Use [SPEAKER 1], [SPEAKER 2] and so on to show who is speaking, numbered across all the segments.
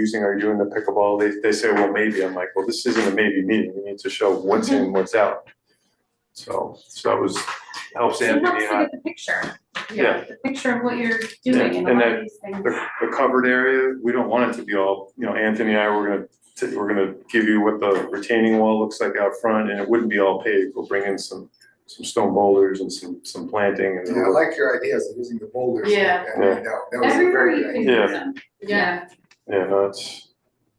[SPEAKER 1] using, are you doing the pickleball? They, they say, well, maybe. I'm like, well, this isn't a maybe meeting. We need to show what's in, what's out. So, so that was, helps
[SPEAKER 2] So you
[SPEAKER 1] Anthony and
[SPEAKER 2] have to
[SPEAKER 1] I.
[SPEAKER 2] get the picture,
[SPEAKER 1] Yeah,
[SPEAKER 2] the picture of what you're
[SPEAKER 1] Yeah,
[SPEAKER 2] doing
[SPEAKER 1] and
[SPEAKER 2] and all
[SPEAKER 1] that-
[SPEAKER 2] of these things.
[SPEAKER 1] the, the covered area, we don't want it to be all, you know, Anthony and I, we're gonna, t- we're gonna give you what the retaining wall looks like out front and it wouldn't be all paved. We'll bring in some, some stone boulders and some, some planting and.
[SPEAKER 3] Yeah, I like your ideas of using the boulders.
[SPEAKER 4] Yeah.
[SPEAKER 3] and- and That that was a
[SPEAKER 2] Everywhere
[SPEAKER 3] very
[SPEAKER 2] you
[SPEAKER 3] good
[SPEAKER 2] can
[SPEAKER 3] idea.
[SPEAKER 1] Yeah.
[SPEAKER 2] do them,
[SPEAKER 4] Yeah.
[SPEAKER 1] Yeah, no, it's,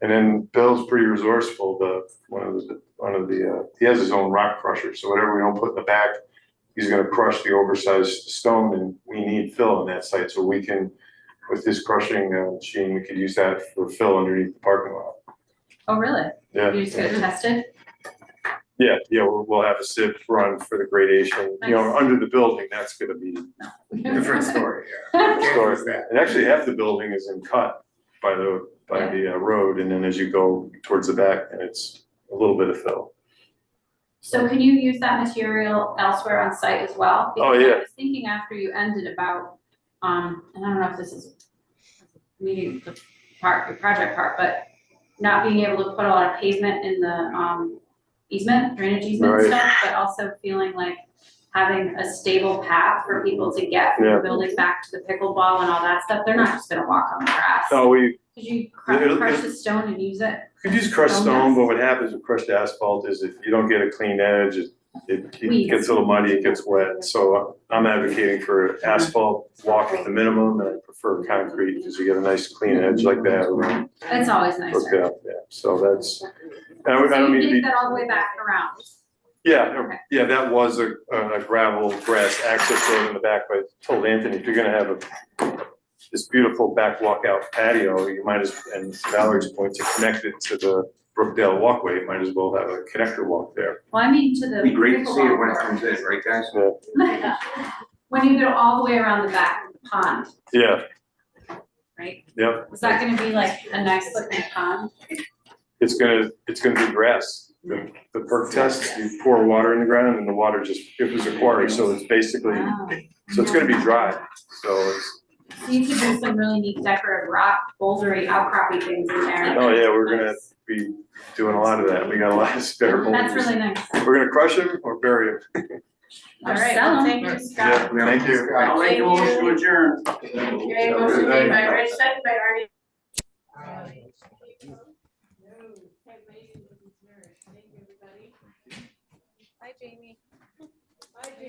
[SPEAKER 1] and then Bill's pretty resourceful, the, one of the, one of the, uh, he has his own rock crusher, so whatever we don't put in the back, he's gonna crush the oversized stone and we need fill on that site, so we can, with his crushing uh, machine, we could use that for fill underneath the parking lot.
[SPEAKER 2] oh, really?
[SPEAKER 1] Yeah.
[SPEAKER 2] You just get it tested?
[SPEAKER 1] Yeah, yeah, we'll, we'll have a SIP run for the gradation, you know,
[SPEAKER 2] Nice.
[SPEAKER 1] under the building, that's gonna be,
[SPEAKER 3] uh, Different story, yeah.
[SPEAKER 2] That's
[SPEAKER 3] Can't use that.
[SPEAKER 1] and actually half the building is in cut by the, by the uh, road, and then as you go towards the back, and it's a little bit of fill.
[SPEAKER 2] So can you use that material elsewhere on site as well?
[SPEAKER 1] Oh,
[SPEAKER 2] Because
[SPEAKER 1] yeah.
[SPEAKER 2] I was thinking after you ended about, um, and I don't know if this is meeting the part, the project part, but not being able to put a lot of pavement in the, um, easement, drainage easement
[SPEAKER 1] Right.
[SPEAKER 2] stuff, but also feeling like having a stable path for people to get from
[SPEAKER 1] Yeah.
[SPEAKER 2] the building back to the pickleball and all that stuff, they're not just gonna walk on the grass.
[SPEAKER 1] No, we,
[SPEAKER 2] Could you crush,
[SPEAKER 1] It'll-
[SPEAKER 2] crush the stone and use it?
[SPEAKER 1] Could use crushed
[SPEAKER 2] Stone
[SPEAKER 1] stone,
[SPEAKER 2] dust.
[SPEAKER 1] but what happens with crushed asphalt is if you don't get a clean edge, it, it it
[SPEAKER 2] Weeds.
[SPEAKER 1] gets a little muddy, it gets wet. So I'm advocating for asphalt walk at the minimum, and I prefer concrete, because you get a nice clean edge like that around.
[SPEAKER 2] That's always nicer.
[SPEAKER 1] Okay, yeah, so that's, I don't, I don't mean to
[SPEAKER 2] So you
[SPEAKER 1] be,
[SPEAKER 2] dig that all the way back around?
[SPEAKER 1] yeah,
[SPEAKER 2] Okay.
[SPEAKER 1] yeah, that was a, a gravel grass access road in the back, but I told Anthony, if you're gonna have a this beautiful back walkout patio, you might as, and to Valerie's point, to connect it to the Brookdale walkway, you might as well have a connector walk there.
[SPEAKER 2] Well, I mean to the.
[SPEAKER 5] It'd be great to see it when it
[SPEAKER 2] pickleball
[SPEAKER 5] comes in, right guys?
[SPEAKER 2] court. When you go all the way around the back of the pond,
[SPEAKER 1] Yeah,
[SPEAKER 2] right?
[SPEAKER 1] Yep.
[SPEAKER 2] Is that gonna be like a nice looking pond?
[SPEAKER 1] it's gonna, it's gonna be grass. The, the perk test, you pour water in the ground and the water just, it was a quarry, so it's basically,
[SPEAKER 2] Wow.
[SPEAKER 1] so it's gonna be dry. So it's,
[SPEAKER 2] So You could do some really neat decorative rock, bouldery, outcroppy things in there.
[SPEAKER 1] oh yeah, we're gonna be doing a lot of that. We got a lot of spare
[SPEAKER 2] That's
[SPEAKER 1] boulders.
[SPEAKER 2] really nice.
[SPEAKER 1] We're gonna crush them or bury them.
[SPEAKER 2] All
[SPEAKER 4] Or
[SPEAKER 2] right,
[SPEAKER 4] sell 'em.
[SPEAKER 2] thank you,
[SPEAKER 1] Yeah,
[SPEAKER 2] Scott.
[SPEAKER 1] thank you.
[SPEAKER 5] I'll make a motion to adjourn.
[SPEAKER 4] Okay, motion made by Rich, second by Arnie.
[SPEAKER 2] Thank you, everybody.
[SPEAKER 6] Hi, Jamie. Hi, Jamie.